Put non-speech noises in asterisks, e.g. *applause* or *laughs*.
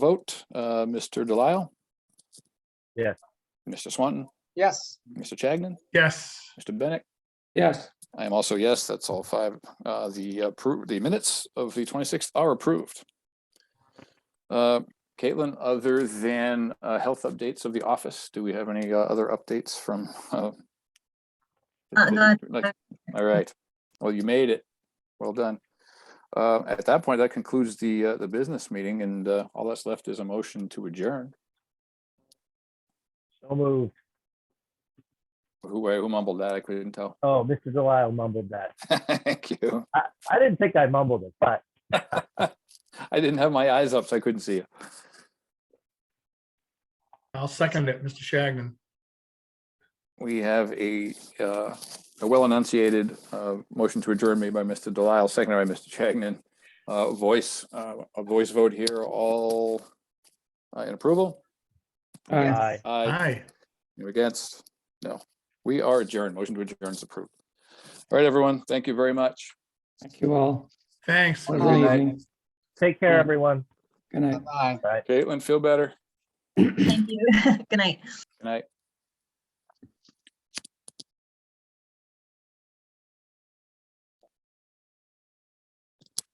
vote. Uh, Mr. Delisle? Yes. Mr. Swanton, Yes, Mr. Chagnon, yes, Mr. Bennett? yes, I am also yes, that's all five. Uh, the approved, the minutes of the twenty-sixth are approved. Uh, Caitlin, other than, uh, health updates of the office, do we have any, uh, other updates from, uh? Uh, not- like- All right, well, you made it. Well done. Uh, at that point, that concludes the, uh, the business meeting and, uh, all that's left is a motion to adjourn. So moved. Who, who mumbled that? I couldn't tell. *laughs* Oh, Mr. Delisle mumbled that. Thank you. I, I didn't think I mumbled it, but I didn't have my eyes up, so I couldn't see you. I'll second it, Mr. Shagnon. We have a, uh, a well enunciated, uh, motion to adjourn made by Mr. Delisle, seconded by Mr. Chagnon. Uh, voice, uh, a voice vote here, all uh, in approval? aye. I, Aye. Aye, You against? No. We are adjourned. Motion to adjourn is approved. All right, everyone. Thank you very much. thank you all. thanks. Have a All Good right. evening. take care, Yeah. everyone. Good night. bye-bye. Caitlin, feel better. Thank you. *laughs* Good night. Good night.